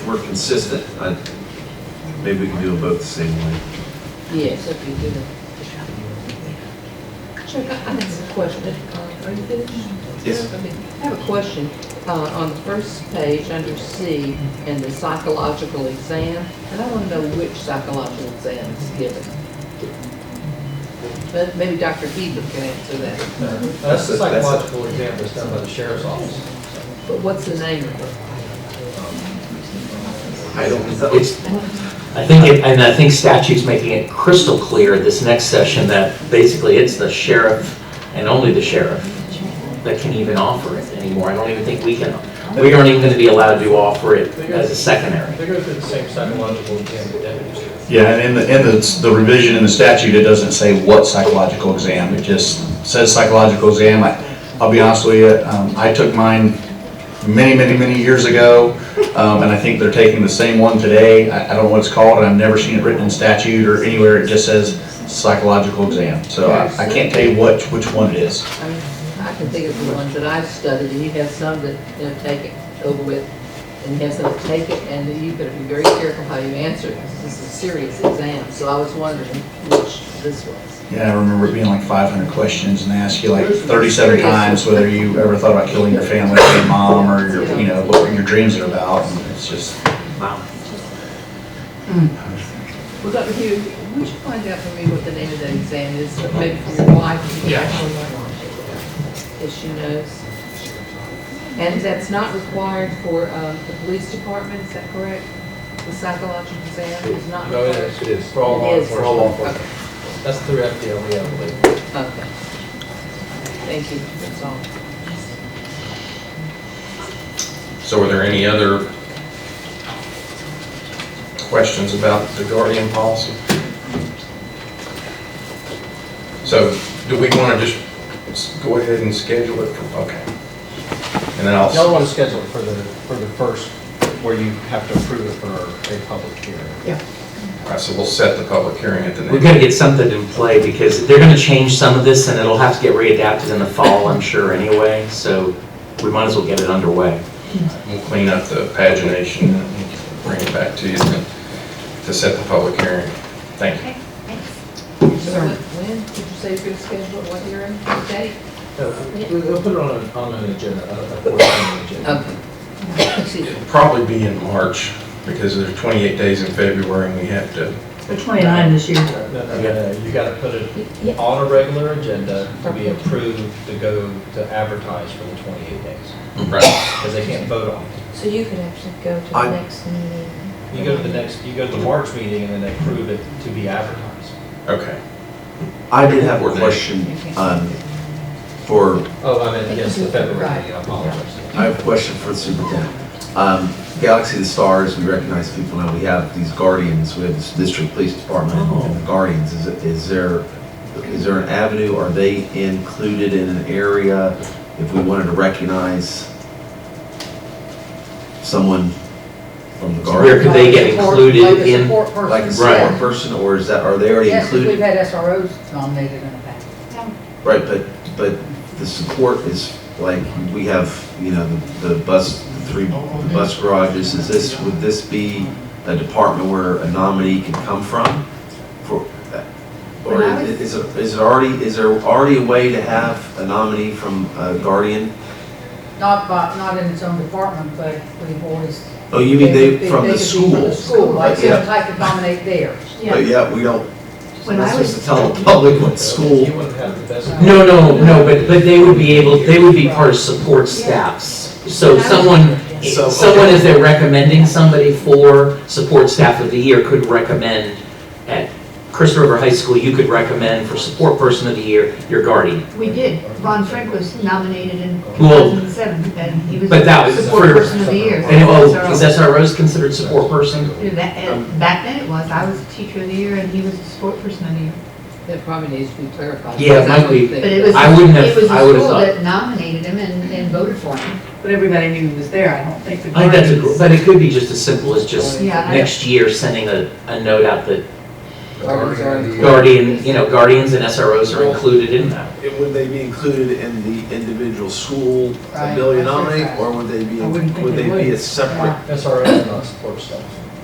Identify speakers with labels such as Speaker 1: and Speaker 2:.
Speaker 1: we're consistent, I, maybe we can do them both the same way.
Speaker 2: Yes, if you do. Chuck, I I have a question. Uh, Are you finished?
Speaker 1: Yes.
Speaker 2: Okay. I have a question. Uh, On the first page, under C, and the psychological exam, and I want to know which psychological exam is given. But Maybe Dr. Heber can answer that.
Speaker 1: That's
Speaker 3: That's
Speaker 1: a-
Speaker 3: a
Speaker 1: that's a-
Speaker 3: psychological exam that's done by the sheriff's office.
Speaker 2: But what's the name of it?
Speaker 1: I don't,
Speaker 4: It's, I think, it- and I think statute's making it crystal clear this next session that basically it's the sheriff and only the sheriff that can even offer it anymore. I don't even think we can, we aren't even gonna be allowed to offer it as a secondary.
Speaker 3: They go through the same psychological exam that deputies do.
Speaker 5: Yeah, and in the, in the, the revision in the statute, it doesn't say what psychological exam, it just says psychological exam. I- I'll be honest with you, um, I took mine many, many, many years ago, um, and I think they're taking the same one today. I, I don't know what it's called, and I've never seen it written in statute or anywhere, it just says psychological exam. So I, I can't tell you what, which one it is.
Speaker 2: I mean, I can think of the ones that I've studied, and you have some that, you know, take it over with, and you have some that take it, and you better be very careful how you answer it, because this is a serious exam, so I was wondering which this was.
Speaker 5: Yeah, I remember it being like five hundred questions and they ask you like thirty-seven times whether you ever thought about killing your family or your mom or your, you know, what your dreams are about. And It's just,
Speaker 4: Wow.
Speaker 2: Well, Dr. Hugh, would you find out for me what the name of that exam is, or maybe for your wife? if you
Speaker 3: Yeah.
Speaker 2: actually know? If she knows. And that's not required for uh, the police department, is that correct? The psychological exam is not
Speaker 3: No, it
Speaker 2: required?
Speaker 3: is, it is. For all law
Speaker 2: It is.
Speaker 3: enforcement.
Speaker 2: Okay.
Speaker 3: That's through FDLE, E, I believe.
Speaker 2: Okay. Thank you, that's all.
Speaker 6: So are there any other questions about the guardian policy? So do we want to just s- go ahead and schedule it? for- Okay. And then I'll,
Speaker 3: Y'all
Speaker 6: all
Speaker 3: want to schedule it for the, for the first, where you have to approve it for a public hearing.
Speaker 6: right, so we'll set the public hearing at the
Speaker 4: We've
Speaker 6: next.
Speaker 4: gotta get something in play because they're gonna change some of this and it'll have to get readapted in the fall, I'm sure, anyway. So we might as well get it underway.
Speaker 6: We'll clean up the pagination and bring it back to you to to set the public hearing. Thank you.
Speaker 2: When when did you say you're gonna schedule it, what hearing, what date?
Speaker 3: No, we- We'll put it on, a- on an agenda, a a forthcoming agenda.
Speaker 2: Okay. Excuse me.
Speaker 6: It'll probably be in March because there's 28 days in February and we have to
Speaker 7: We're 29 this year.
Speaker 3: No, no, no, no, you got to put it on a regular agenda to be approved to go to advertise for the 28 days,
Speaker 6: Right.
Speaker 3: because they can't vote on it.
Speaker 8: So you could actually go to
Speaker 1: I-
Speaker 8: the next meeting.
Speaker 3: You go to the next, you go to the March meeting, and then they approve it to be advertised.
Speaker 6: Okay.
Speaker 1: I did have a question, um, for
Speaker 3: Oh, I meant, yes, the February meeting, I apologize.
Speaker 1: I have a question for the superintendent. Um, Galaxy of the Stars, we recognize people now, we have these guardians, we have this district police department and the guardians. Is, it- is there, is there an avenue, are they included in an area if we wanted to recognize someone from the
Speaker 4: Where could
Speaker 1: guardian?
Speaker 4: they get included in?
Speaker 1: Like a
Speaker 4: Right.
Speaker 1: support person, or is that, are they already
Speaker 7: Yes, because we've
Speaker 1: included?
Speaker 7: had SROs nominated in the past.
Speaker 1: Right, but, but the support is, like, we have, you know, the the bus, the three bus garages, is this, would this be a department where a nominee can come from? For, uh, or
Speaker 8: When I was-
Speaker 1: is, it- is it already, is there already a way to have a nominee from a guardian?
Speaker 7: Not by, not in its own department, but we've always.
Speaker 1: Oh, you mean they,
Speaker 7: could
Speaker 1: from
Speaker 7: be
Speaker 1: the
Speaker 7: From the
Speaker 1: schools?
Speaker 7: school, like
Speaker 1: Yeah.
Speaker 7: some type of nominate there.
Speaker 1: But yeah, we don't, we're
Speaker 8: When
Speaker 1: not
Speaker 8: I
Speaker 1: supposed
Speaker 8: was,
Speaker 1: to tell the public what school.
Speaker 3: You wouldn't have the best.
Speaker 4: No, no, no, but, but they would be able, they would be part of support staffs. So someone,
Speaker 1: So-
Speaker 4: someone, if they're recommending somebody for support staff of the year, could recommend at Chris River High School, you could recommend for support person of the year, your guardian.
Speaker 9: We did. Ron Frank was nominated in
Speaker 4: Well,
Speaker 9: 2007, and he was
Speaker 4: but that was for-
Speaker 9: Support Person of the Year.
Speaker 4: And, oh,
Speaker 9: So-
Speaker 4: is SROs considered support person?
Speaker 9: Yeah, that- and Back then it was. I was Teacher of the Year, and he was Support Person of the Year.
Speaker 2: That probably needs to be clarified.
Speaker 4: Yeah, it
Speaker 2: because I
Speaker 4: might be.
Speaker 2: don't think-
Speaker 9: But it was,
Speaker 4: I wouldn't have-
Speaker 9: it was
Speaker 4: I would
Speaker 9: the
Speaker 4: have
Speaker 9: school
Speaker 4: thought-
Speaker 9: that nominated him and and voted for him. But everybody knew he was there. I don't think the
Speaker 4: I think that's a, but it could be just as simple as just
Speaker 9: Yeah, I-
Speaker 4: next year sending a, a note out that Guardian, you know, guardians and SROs are included in that.
Speaker 1: And Would they be included in the individual school
Speaker 7: Right,
Speaker 1: ability to
Speaker 7: I think
Speaker 1: nominate,
Speaker 7: that-
Speaker 1: or would they be,
Speaker 7: I wouldn't think
Speaker 1: would
Speaker 7: they
Speaker 1: they be a
Speaker 7: would.
Speaker 1: separate
Speaker 3: SROs are not support staff.